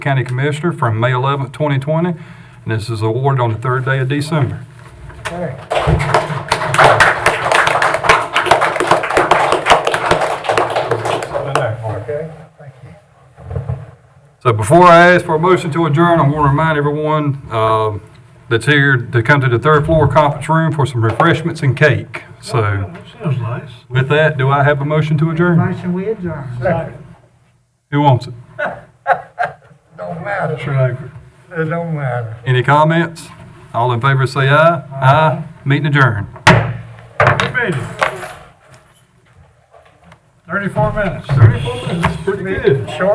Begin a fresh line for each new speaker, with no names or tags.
County Commissioner from May 11th, 2020, and this is awarded on the third day of December.
Okay. Okay, thank you.
So before I ask for a motion to adjourn, I want to remind everyone um, that's here to come to the third floor conference room for some refreshments and cake. So
Sounds nice.
with that, do I have a motion to adjourn?
Motion we adjourn.
Who wants it?
Don't matter,
Mr. Langford.
it don't matter.
Any comments? All in favor, say aye. Aye. Meeting adjourned.
We made it. Thirty-four minutes.
Thirty-four minutes, pretty good.
Short